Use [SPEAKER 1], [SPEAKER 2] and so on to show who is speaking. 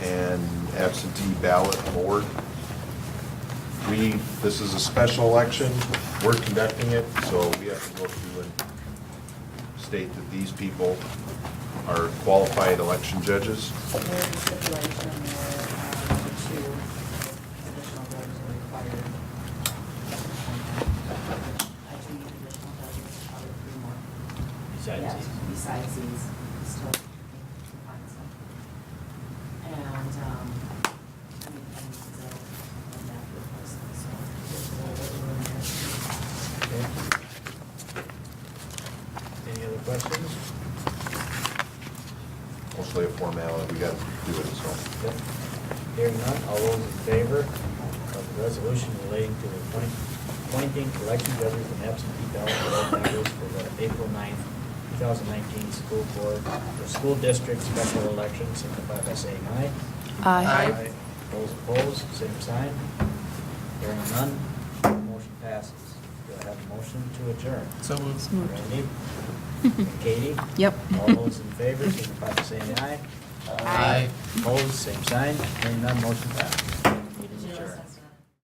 [SPEAKER 1] absentee ballot board. We, this is a special election, we're conducting it, so we have to go through and state that these people are qualified election judges.
[SPEAKER 2] There's a stipulation where um, two additional votes are required. Uh, two additional votes, probably three more.
[SPEAKER 3] Besides
[SPEAKER 2] Yeah,
[SPEAKER 3] these.
[SPEAKER 2] Besides these, we still can find some. And, um, I mean, and so, and that would person, so. there's a little bit of room
[SPEAKER 3] Okay. Any other questions?
[SPEAKER 1] Mostly a formality, we got to do it, so.
[SPEAKER 3] Yep. Hearing none, all those in favor of the resolution relating to the appoint- appointing election judges and absentee ballot roll members for the April 9th, 2019 school board, the school district special election, signify by saying aye.
[SPEAKER 4] Aye.
[SPEAKER 3] Those opposed, same sign. Hearing none, motion passes. Do I have a motion to adjourn?
[SPEAKER 4] So moved. So moved.
[SPEAKER 3] Randy? Katie?
[SPEAKER 4] Yep.
[SPEAKER 3] All those in favor, signify by saying aye.
[SPEAKER 4] Aye.
[SPEAKER 3] Opposed, same sign. Hearing none, motion passes.